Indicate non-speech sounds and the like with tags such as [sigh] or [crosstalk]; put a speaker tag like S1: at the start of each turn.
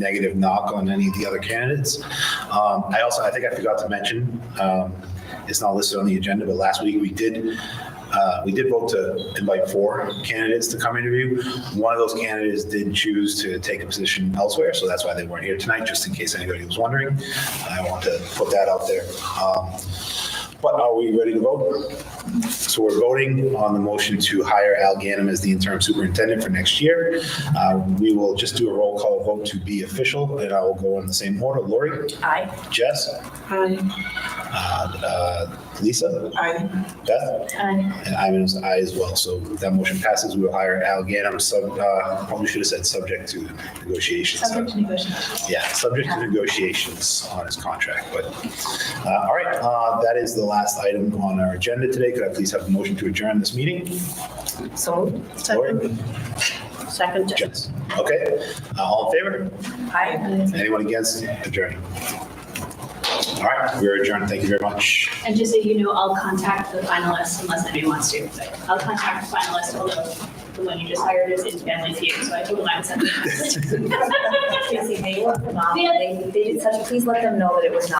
S1: negative knock on any of the other candidates. Um, I also, I think I forgot to mention, um, it's not listed on the agenda, but last week we did, uh, we did vote to invite four candidates to come interview. One of those candidates did choose to take a position elsewhere, so that's why they weren't here tonight, just in case anybody was wondering. I want to put that out there. Um, But are we ready to vote? So we're voting on the motion to hire Al Ganem as the interim superintendent for next year. Uh, We will just do a roll call vote to be official, and I will go in the same order. Lori?
S2: Aye.
S1: Jess?
S2: Aye.
S1: uh, uh, Lisa?
S2: Aye.
S1: Beth?
S2: Aye.
S1: And I'm an aye as well, so that motion passes. We will hire Al Ganem, sub, uh, probably should have said subject to negotiations.
S2: Subject to negotiation.
S1: Yeah, subject to negotiations on his contract, but, uh, all right, uh, that is the last item on our agenda today. Could I please have a motion to adjourn this meeting?
S2: So
S1: Lori?
S2: Second.
S1: Yes. Okay, Uh, all in favor?
S2: Aye.
S1: Anyone against? Adjourn. All right, we're adjourned. Thank you very much.
S3: And just so you know, I'll contact the finalists unless anybody wants to, but I'll contact the finalists, although the one you just hired is in family feud, so I told him I would [laughs] send them. a message.
S4: Tracy, they were phenomenal. They, they did such, please let them know that it was not